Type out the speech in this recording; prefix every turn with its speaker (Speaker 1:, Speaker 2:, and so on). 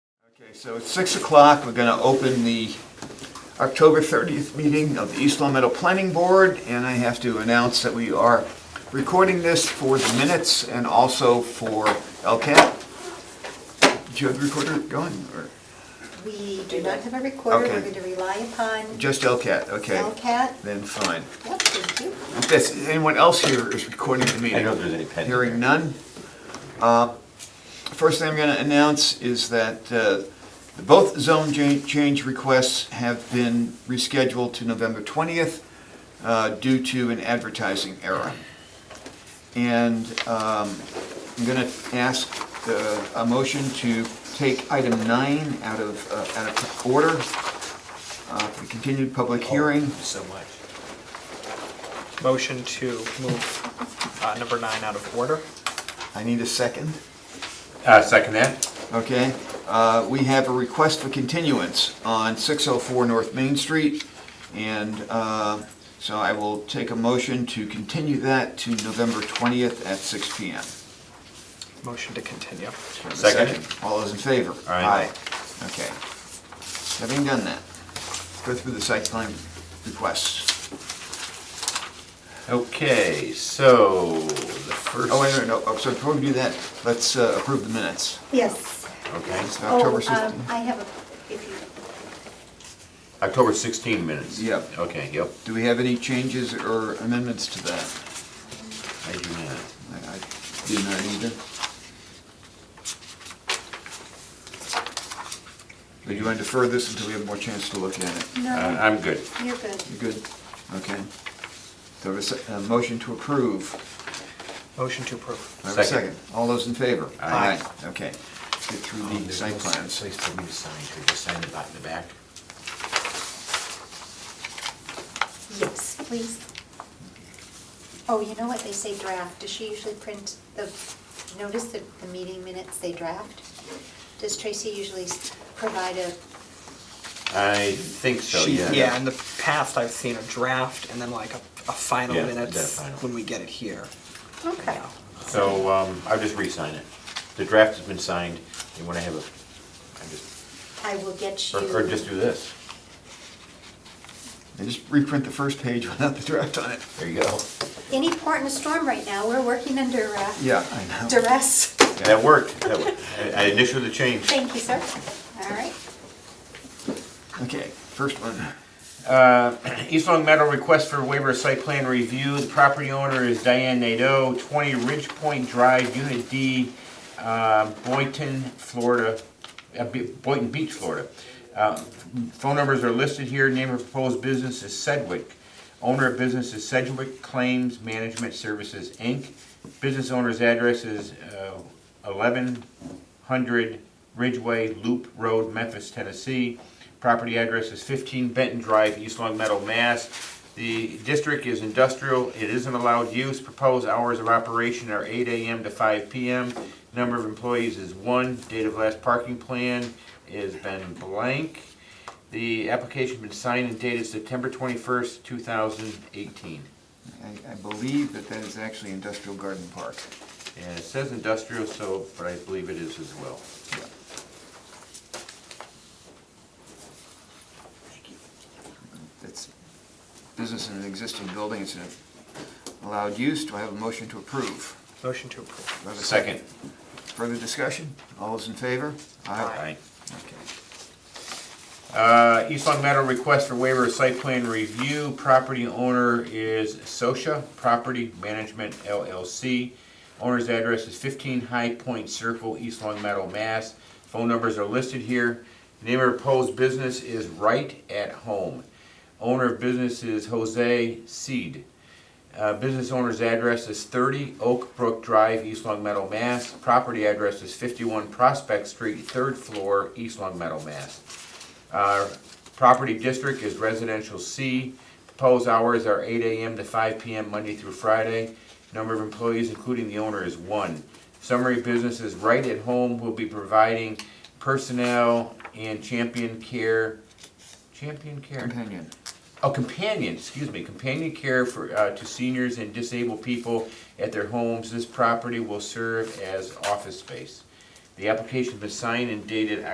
Speaker 1: Okay, So it's 6 o'clock, we're going to open the October 30th meeting of the East Long Meadow Planning Board, and I have to announce that we are recording this for the minutes and also for LCAT. Do you have the recorder going, or
Speaker 2: We do not have a recorder,
Speaker 1: Okay.
Speaker 2: we're going to rely upon
Speaker 1: just LCAT? Okay.
Speaker 2: LCAT.
Speaker 1: Then fine.
Speaker 2: Yep, thank you.
Speaker 1: If that's- anyone else here is recording the meeting?
Speaker 3: I know there's any pending.
Speaker 1: Hearing none. Uh, First thing I'm going to announce is that uh, both zone cha- change requests have been rescheduled to November 20th uh, due to an advertising error. And um, I'm going to ask uh, a motion to take item nine out of, uh, out of order uh, for the continued
Speaker 3: Oh.
Speaker 1: public hearing.
Speaker 3: So much.
Speaker 4: Motion to move uh, number nine out of order.
Speaker 1: I need a second.
Speaker 3: Uh, second that?
Speaker 1: Okay, uh, we have a request for continuance on 604 North Main Street, and uh, so I will take a motion to continue that to November 20th at 6 PM.
Speaker 4: Motion to continue.
Speaker 1: Do I have a
Speaker 3: Second.
Speaker 1: All those in favor?
Speaker 3: Aye.
Speaker 1: Aye. Okay. Having done that, go through the site plan requests.
Speaker 3: Okay, so the first.
Speaker 1: Oh, wait, no, no, oh, so before we do that, let's uh, approve the minutes.
Speaker 2: Yes.
Speaker 3: Okay,
Speaker 1: It's
Speaker 2: Oh,
Speaker 1: October
Speaker 2: um,
Speaker 1: 16th.
Speaker 2: I have a, if you,
Speaker 3: October 16 minutes.
Speaker 1: Yep.
Speaker 3: Okay, yep.
Speaker 1: Do we have any changes or amendments to that?
Speaker 3: I do not.
Speaker 1: I I do not either. Would you want to defer this until we have more chance to look at it?
Speaker 3: Uh,
Speaker 2: no,
Speaker 3: I'm good.
Speaker 2: you're good.
Speaker 1: You good? Okay. Do I have a se- a motion to approve?
Speaker 4: Motion to approve.
Speaker 1: Do I have a
Speaker 3: Second.
Speaker 1: second? All those in favor?
Speaker 3: Aye.
Speaker 1: Okay. Get through the Oh, site plans.
Speaker 3: Place for me to sign, could you sign it out in the back?
Speaker 2: Yes, please. Oh, you know what, they say draft, does she usually print the, notice that the meeting minutes, they draft? Does Tracy usually s- provide a,
Speaker 3: I think so,
Speaker 4: She-
Speaker 3: yeah.
Speaker 4: in the past, I've seen a draft and then like a, a final
Speaker 3: Yeah,
Speaker 4: minutes
Speaker 3: that final.
Speaker 4: when we get it here.
Speaker 2: okay,
Speaker 4: Yeah.
Speaker 3: So, um, I'll just re-sign it. The draft has been signed, and when I have a, I just,
Speaker 2: I will get you.
Speaker 3: or- or just do this.
Speaker 1: And just reprint the first page without the draft on it.
Speaker 3: There you go.
Speaker 2: Any port in a storm right now, we're working under uh,
Speaker 1: Yeah, I know.
Speaker 2: duress.
Speaker 3: That worked. That worked. I- I initially the change.
Speaker 2: Thank you, sir. All right.
Speaker 1: Okay, first one.
Speaker 3: Uh, East Long Meadow request for waiver of site plan review. The property owner is Diane Nadeau, 20 Ridge Point Drive, Unit D, uh, Boynton, Florida, uh, Be- Boynton Beach, Florida. Uh, Phone numbers are listed here. Name of proposed business is Sedgwick. Owner of business is Sedgwick Claims Management Services, Inc. Business owner's address is uh, 1100 Ridgeway Loop Road, Memphis, Tennessee. Property address is 15 Benton Drive, East Long Meadow, Mass. The district is industrial, it isn't allowed use. Proposed hours of operation are 8 AM to 5 PM. Number of employees is one. Date of last parking plan has been blank. The application's been signed and dated September 21st, 2018.
Speaker 1: I I believe that that is actually Industrial Garden Park.
Speaker 3: And it says industrial, so, but I believe it is as well.
Speaker 1: Yeah. It's business in an existing building, it's an allowed use, do I have a motion to approve?
Speaker 4: Motion to approve.
Speaker 1: Do I have Further discussion? All those in favor?
Speaker 3: Aye.
Speaker 1: Okay.
Speaker 3: Uh, East Long Meadow request for waiver of site plan review. Property owner is Socia Property Management LLC. Owner's address is 15 High Point Circle, East Long Meadow, Mass. Phone numbers are listed here. Name of proposed business is Right at Home. Owner of business is Jose Seed. Uh, Business owner's address is 30 Oak Brook Drive, East Long Meadow, Mass. Property address is 51 Prospect Street, third floor, East Long Meadow, Mass. Uh, Property district is residential C. Proposed hours are 8 AM to 5 PM, Monday through Friday. Number of employees, including the owner, is one. Summary business is right at home will be providing personnel and champion care, champion care?
Speaker 1: Companion.
Speaker 3: Oh, companion, excuse me, companion care for, uh, to seniors and disabled people at their homes. This property will serve as office space. The application was signed and dated